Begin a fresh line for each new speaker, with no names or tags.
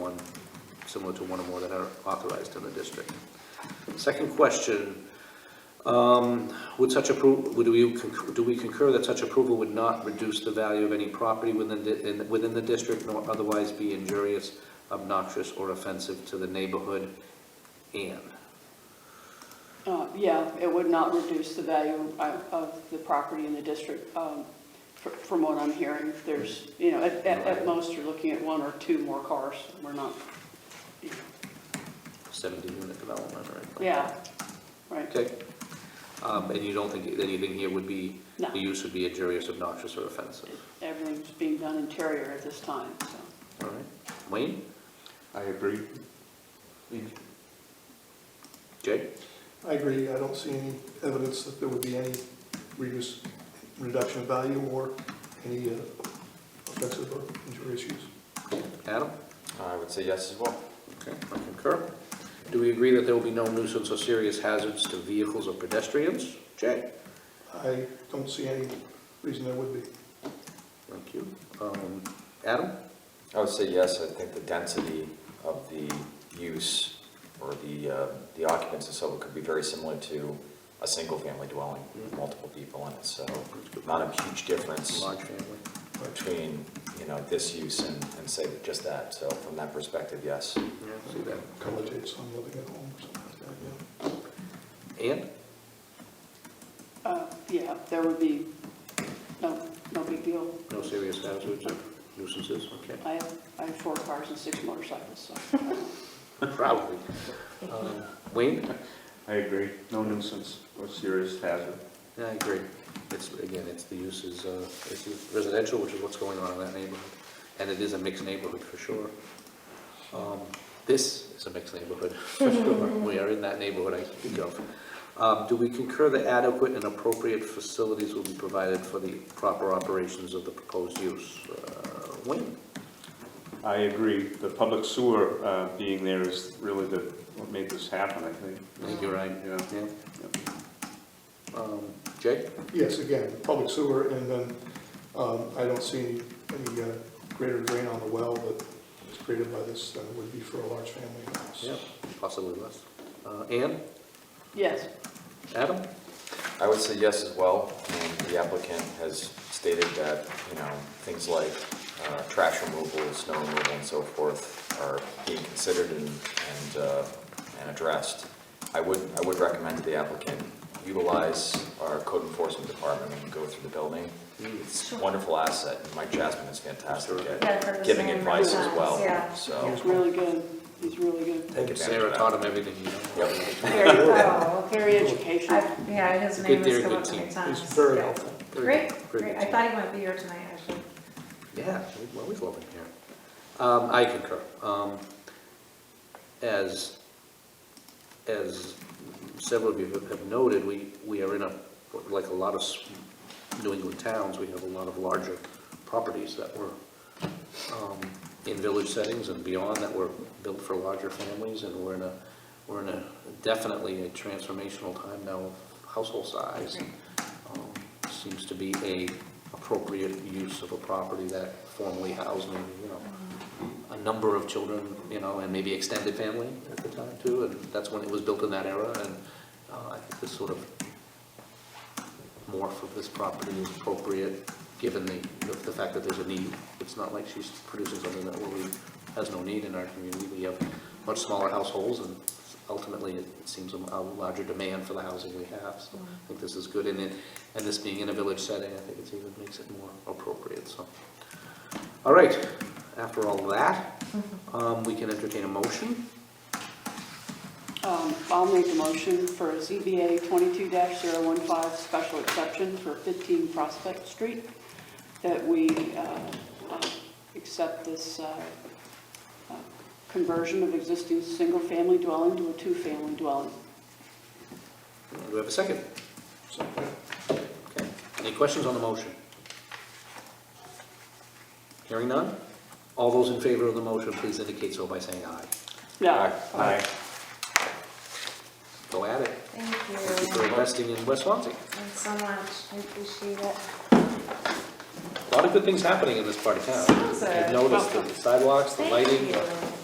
similar to one or more that are authorized in the district. Second question, um, would such approval, would we, conc- do we concur that such approval would not reduce the value of any property within, the- in- within the district nor otherwise be injurious, obnoxious, or offensive to the neighborhood? And,
Uh, Yeah, it would not reduce the value uh, of the property in the district. um, fr- From what I'm hearing, there's, you know, at, at- at most, you're looking at one or two more cars. We're not, you know,
17-unit development, right?
yeah, right.
Okay. Um, And you don't think anything here would be,
No.
the use would be injurious, obnoxious, or offensive?
Everything's being done interior at this time, so.
All right. Wayne?
I agree.
Jay?
I agree, I don't see any evidence that there would be any reduce, reduction of value or any uh, offensive or injurious use.
Adam?
I would say yes as well.
Okay, I concur. Do we agree that there will be no nuisance or serious hazards to vehicles or pedestrians? Jay?
I don't see any reason there would be.
Thank you. Um, Adam?
I would say yes, I think the density of the use or the, uh, the occupants of Silva could be very similar to a single-family dwelling, with multiple people in it, so not a huge difference
Large family.
between, you know, this use and, and say just that, so from that perspective, yes.
Yeah, see that.
Collegiate, some living at home or something like that, yeah.
And?
uh, Yeah, there would be no, no big deal.
No serious hazards or nuisances? Okay.
I have, I have four cars and six motorcycles, so.
Probably. Um, Wayne?
I agree, no nuisance or serious hazard.
Yeah, I agree. It's, again, it's the use is, uh, it's residential, which is what's going on in that neighborhood. And it is a mixed neighborhood for sure. Um, This is a mixed neighborhood for sure. We are in that neighborhood I speak of. Um, Do we concur that adequate and appropriate facilities will be provided for the proper operations of the proposed use? Uh, Wayne?
I agree, the public sewer uh, being there is really the, what made this happen, I think.
I think you're right.
Yeah.
Yeah? Um, Jay?
Yes, again, public sewer, and then um, I don't see any, any uh, greater drain on the well that is created by this than it would be for a large family house.
Possibly less. Uh, Ann?
Yes,
Adam?
I would say yes as well, and the applicant has stated that, you know, things like uh, trash removal, snow removal, and so forth are being considered and, and, uh, and addressed. I would, I would recommend to the applicant utilize our code enforcement department when you go through the building. It's a wonderful asset, and Mike Jasmine is fantastic
Yeah,
at
for the
giving
same
advice as
reasons,
well,
yeah.
so.
he's really good. He's really good.
take advantage of
Sarah
that.
taught him everything he knows.
Yep.
Very thorough, okay.
Very educational.
I- Yeah, his
Good
name
theory,
has come
good
up many
team.
times.
It's very
yeah.
helpful.
Very
Great,
good, very
great.
good
I thought he might be here tonight, actually.
Yeah, we always love it here. Um, I concur. Um, as, as several of you have noted, we, we are in a, like a lot of s- New England towns, we have a lot of larger properties that were, um, in village settings and beyond that were built for larger families, and we're in a, we're in a, definitely a transformational time now of household size.
Right.
Um, Seems to be a appropriate use of a property that formerly housed, maybe, you know, a number of children, you know, and maybe extended family at the time too, and that's when it was built in that era, and uh, I think this sort of morph of this property is appropriate, given the, the fact that there's a need. It's not like she's producing something that really has no need in our community. We have much smaller households, and ultimately, it seems a larger demand for the housing we have, so I think this is good, and it, and this being in a village setting, I think it's even makes it more appropriate, so. All right, after all that, um, we can entertain a motion.
Um, I'll make a motion for ZBA 22-015 special exception for 15 Prospect Street, that we uh, uh, accept this uh, uh, conversion of existing single-family dwelling to a two-family dwelling.
Do we have a second?
So, yeah.
Okay. Any questions on the motion? Hearing none? All those in favor of the motion, please indicate so by saying aye.
Yeah,
Aye.
Go at it. Thank you
Thank
for
you.
investing in West Swansea.
Thanks so much. I appreciate it.
A lot of good things happening in this part of town.
Sounds like-
I've noticed the sidewalks, the
Thank
lighting,
you.
uh,
the